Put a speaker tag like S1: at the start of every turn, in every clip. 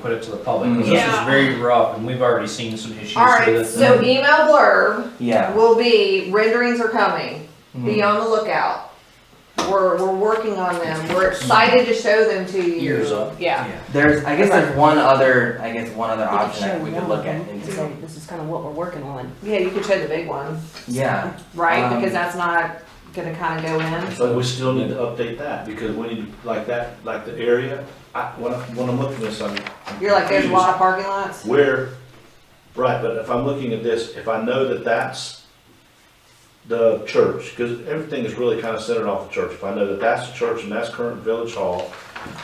S1: put it to the public, 'cause this is
S2: Yeah.
S1: very rough, and we've already seen some issues
S2: All right,
S1: with
S2: so
S1: it.
S2: email blurb
S3: Yeah.
S2: will be renderings are coming. Be
S3: Mhm.
S2: on the lookout. We're, we're working on them. We're excited to show them to you.
S1: Years up.
S2: Yeah.
S3: There's, I guess there's one other, I guess one other
S4: We could
S3: option
S4: show
S3: that we could
S4: one
S3: look
S4: of
S3: at
S4: them and say,
S3: into.
S4: This is kind of what we're working on.
S2: Yeah, you could show the big one,
S3: Yeah,
S2: right?
S3: Um,
S2: Because that's not gonna kinda go in.
S5: But we still need to update that, because we need, to like that, like the area, I, when I, when I'm looking at this, I'm. I'm
S2: You're like, there's a
S5: confused.
S2: lot of parking lots.
S5: Where, right, but if I'm looking at this, if I know that that's the church, because everything is really kind of centered off the church, if I know that that's the church and that's current village hall.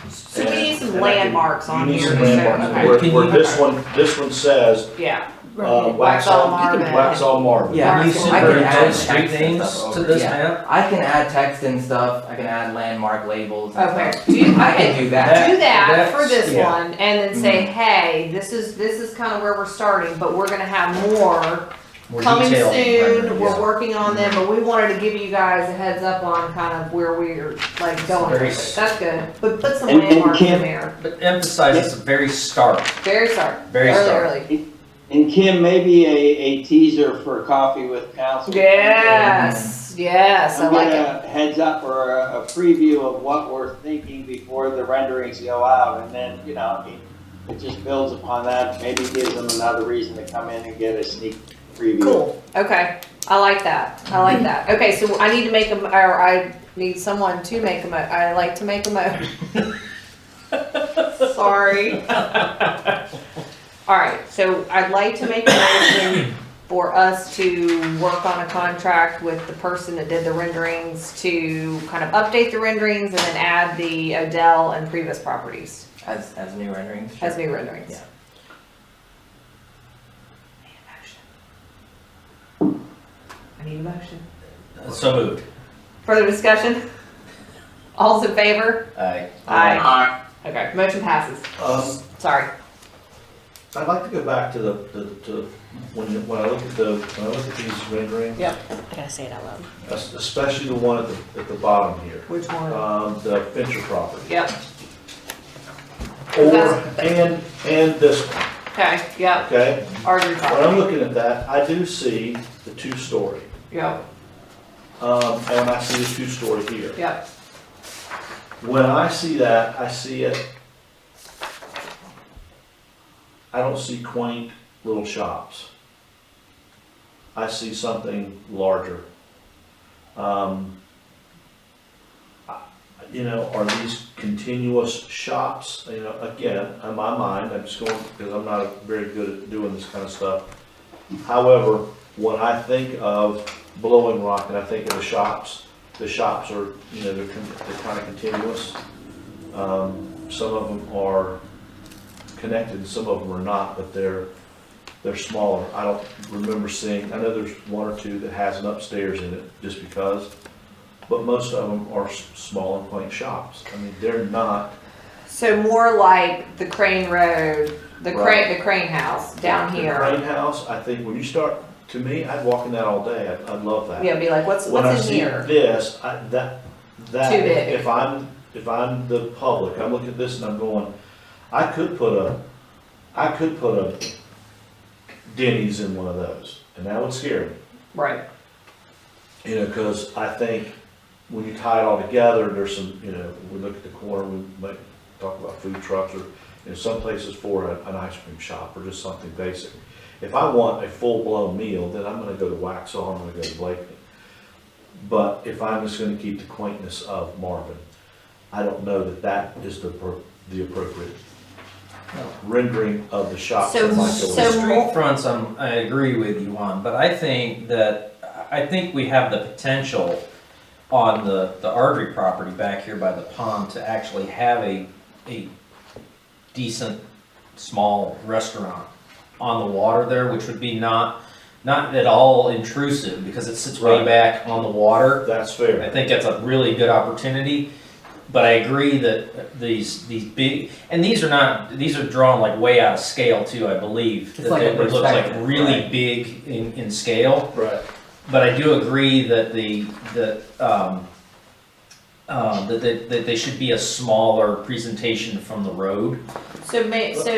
S2: So we need some
S5: and I can-
S2: landmarks on
S5: You need
S2: here
S5: some
S2: to show.
S5: landmarks,
S2: them.
S5: where,
S1: Can
S5: where
S1: you-
S5: this one, this one says,
S2: Yeah,
S5: uh,
S2: Wax
S5: wax
S2: all
S5: on,
S2: Marvin.
S5: wax all Marvin.
S3: Yeah,
S1: Can you
S2: I
S1: send
S2: can
S1: her
S3: add
S1: those
S3: text
S1: street
S3: and
S1: names
S3: stuff
S1: to
S3: over,
S1: this
S3: yeah.
S1: map?
S3: I can add text and stuff, I can add landmark labels and
S2: okay.
S3: stuff.
S2: Do, you-
S3: I
S2: okay,
S3: can do that.
S2: do that
S1: That's-
S2: for this
S5: yeah.
S2: one and then say, hey, this is, this is kinda where we're starting, but we're gonna have more
S1: More
S2: coming
S1: detailed
S2: soon.
S1: rendering,
S2: We're
S1: yeah.
S2: working on them, but we wanted to give you guys a heads up on kind of where we're like going. with
S1: Very
S2: it. That's good. But put some
S6: And- and
S2: landmarks in
S6: Kim-
S2: there.
S1: But emphasize it's very stark,
S2: Very sorry.
S1: very
S2: Early,
S1: stark.
S2: early.
S6: And Kim, maybe a, a teaser for coffee with council.
S2: Yes, yes, I
S6: I'm
S2: like
S6: gonna
S2: it.
S6: heads up or a, a preview of what we're thinking before the renderings go out, and then, you know, I mean, it just builds upon that, maybe gives them another reason to come in and get a sneak preview.
S2: Cool. Okay. I like that. I like that. Okay, so I need to make them, or I need someone to make a mo, I like to make a mo. Sorry. All right, so I'd like to make a motion for us to work on a contract with the person that did the renderings to kind of update the renderings and then add the Odell and previous properties
S3: As, as new renderings. sure.
S2: as new renderings.
S3: Yeah.
S2: I need a motion.
S1: So moved.
S2: Further discussion? All's in favor?
S1: Aye.
S2: Aye.
S6: Uh,
S2: Okay, motion passes.
S5: Um,
S2: Sorry.
S5: I'd like to go back to the, the- to, when, you- when I look at the, when I look at these renderings,
S4: I gotta say it out loud.
S5: es- especially the one at the, at the bottom here,
S2: Which one?
S5: um, the Fincher property.
S2: Yep,
S5: Or, and, and this one,
S2: okay, yep,
S5: okay?
S2: Arden
S5: When I'm
S2: property.
S5: looking at that, I do see the two-story,
S2: Yep,
S5: um, and I see the two-story here.
S2: yep,
S5: When I see that, I see it, I don't see quaint little shops. I see something larger. Um, I- You know, are these continuous shops, you know, again, in my mind, I'm just going, because I'm not very good at doing this kind of stuff. However, when I think of Blowing Rock and I think of the shops, the shops are, you know, they're, con- they're kind of continuous. Um, Some of them are connected, some of them are not, but they're, they're smaller. I don't remember seeing, I know there's one or two that has an upstairs in it, just because, but most of them are s- small and quaint shops. I mean, they're not,
S2: so more like the Crane Road, the Crane,
S5: Right.
S2: the Crane House down
S5: the
S2: here.
S5: Crane House, I think, when you start, to me, I'd walk in that all day, I'd, I'd love that.
S2: Yeah, be like, what's,
S5: When I
S2: what's in
S5: see
S2: here?
S5: this, I, that, that,
S2: Too big.
S5: if I'm, if I'm the public, I'm looking at this and I'm going, I could put a, I could put a Denny's in one of those, and that would scare me.
S2: Right,
S5: You know, cause I think when you tie it all together, there's some, you know, we look at the corner, we might talk about food trucks or, you know, some places for a- an ice cream shop or just something basic. If I want a full-blown meal, then I'm gonna go to Waxhaw, I'm gonna go to Blakeney. But if I'm just gonna keep the quaintness of Marvin, I don't know that that is the, appro- the appropriate rendering of the shop.
S2: So-
S5: that might go
S2: so
S5: with
S1: The
S5: it.
S1: street fronts, I'm, um, I agree with you on, but I think that, I think we have the potential on the, the Ardrey property back here by the pond to actually have a, a decent, small restaurant on the water there, which would be not, not at all intrusive, because it sits way
S5: Right.
S1: back on the water.
S5: That's fair.
S1: I think that's a really good opportunity, but I agree that these, these big, and these are not, these are drawn like way out of scale too, I believe.
S3: It's
S1: That
S3: like a
S1: It looks like
S3: perspective,
S1: really
S3: right.
S1: big in, in scale,
S5: Right.
S1: but I do agree that the, that, um, uh, um, that, that, that they should be a smaller presentation from the road.
S2: so may, so